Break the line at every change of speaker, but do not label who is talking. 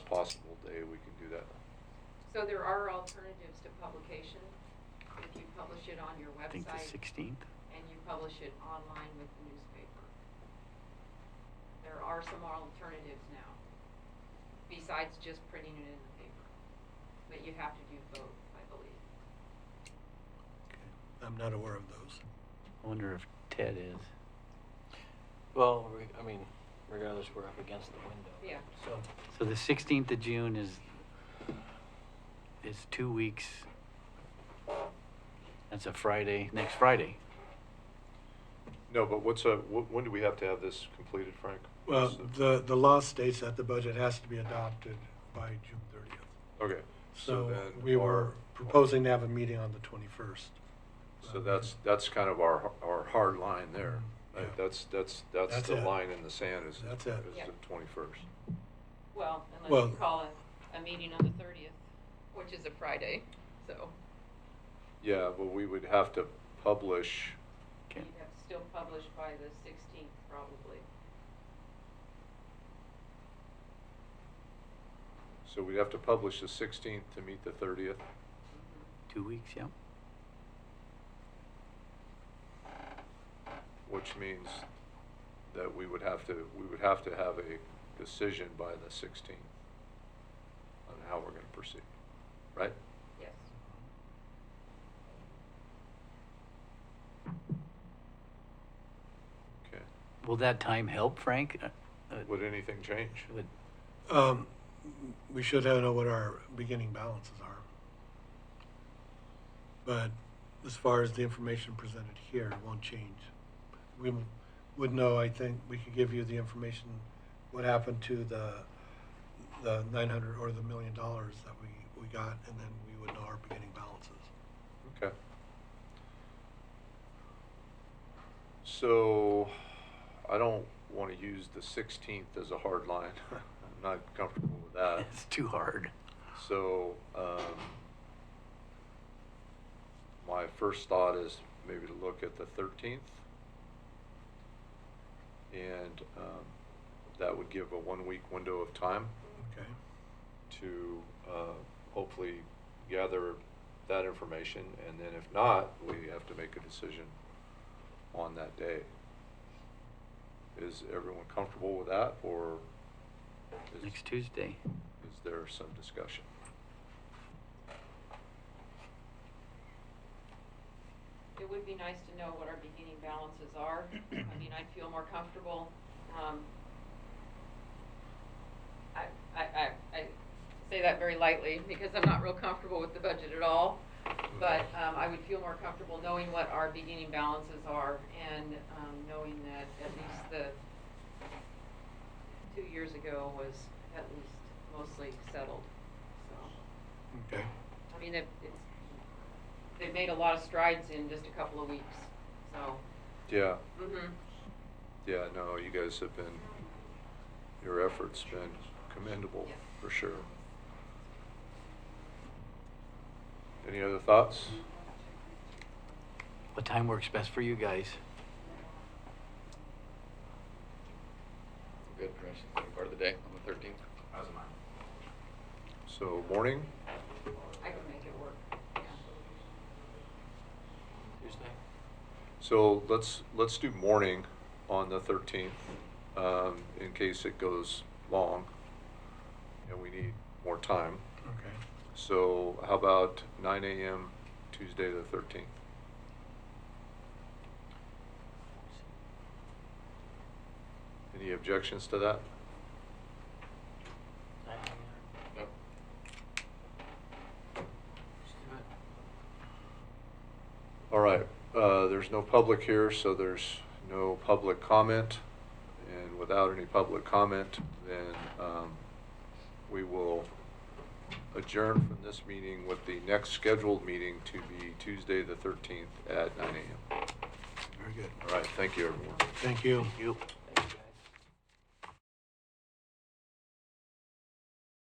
possible day we can do that.
So there are alternatives to publication. If you publish it on your
I think the
website
16th.
and you publish it online with the newspaper. There are some alternatives now, besides just printing it in the paper. But you have to do both, I believe.
Okay.
I'm not aware of those.
I wonder if Ted is.
Well, re- I mean, regardless, we're up against the window.
Yeah.
So,
So the 16th of June is is two weeks. That's a Friday. Next Friday.
No, but what's a, wh- when do we have to have this completed, Frank?
Well,
What's
the, the law states that the budget has to be adopted by June thirtieth.
Okay.
So
then
we were
our-
proposing to have a meeting on the twenty-first.
So that's, that's kind of our, our hard line there.
Mm-hmm. Yeah.
That- That's, that's, that's
That's
the
it.
line in the sand is, is
That's
the
it.
Yeah.
twenty-first.
Well,
Well-
unless you call a, a meeting on the thirtieth, which is a Friday, so
Yeah, but we would have to publish,
Okay.
you'd have to still publish by the sixteenth probably.
so we'd have to publish the sixteenth to meet the thirtieth.
Mm-hmm.
Two weeks. Yeah.
Which means that we would have to, we would have to have a decision by the sixteenth on how we're gonna proceed, right?
Yes.
Okay.
Will that time help, Frank? Uh, uh,
Would anything change?
would-
Um, we should have know what our beginning balances are. But as far as the information presented here, it won't change. We would know, I think, we could give you the information, what happened to the, the nine hundred or the million dollars that we, we got, and then we would know our beginning balances.
Okay. So, I don't wanna use the sixteenth as a hard line. I'm not comfortable with that.
it's too hard.
So, um, my first thought is maybe to look at the thirteenth. And, um, that would give a one-week window of time
Okay?
to, uh, hopefully gather that information. And then if not, we have to make a decision on that day. Is everyone comfortable with that or is,
Next Tuesday.
is there some discussion?
It would be nice to know what our beginning balances are. I mean, I'd feel more comfortable. um, I, I, I, I say that very lightly because I'm not real comfortable with the budget at all. But um, I would feel more comfortable knowing what our beginning balances are and um, knowing that at least the, two years ago was at least mostly settled, so.
Okay.
I mean, it- it's, they've made a lot of strides in just a couple of weeks, so.
Yeah.
mhm.
Yeah, no, you guys have been, your efforts been commendable,
Yeah.
for sure. Any other thoughts?
What time works best for you guys?
Good, permission, any part of the day on the thirteenth? How's mine?
So morning,
I can make it work, yeah.
Tuesday?
so let's, let's do morning on the thirteenth, um, in case it goes long and we need more time.
Okay.
So how about nine AM Tuesday the thirteenth? Any objections to that?
Nine AM.
Nope.
Let's do it.
All right, uh, there's no public here, so there's no public comment. And without any public comment, then, um, we will adjourn from this meeting with the next scheduled meeting to be Tuesday, the thirteenth at nine AM.
Very good.
All right, thank you, everyone.
Thank you.
You.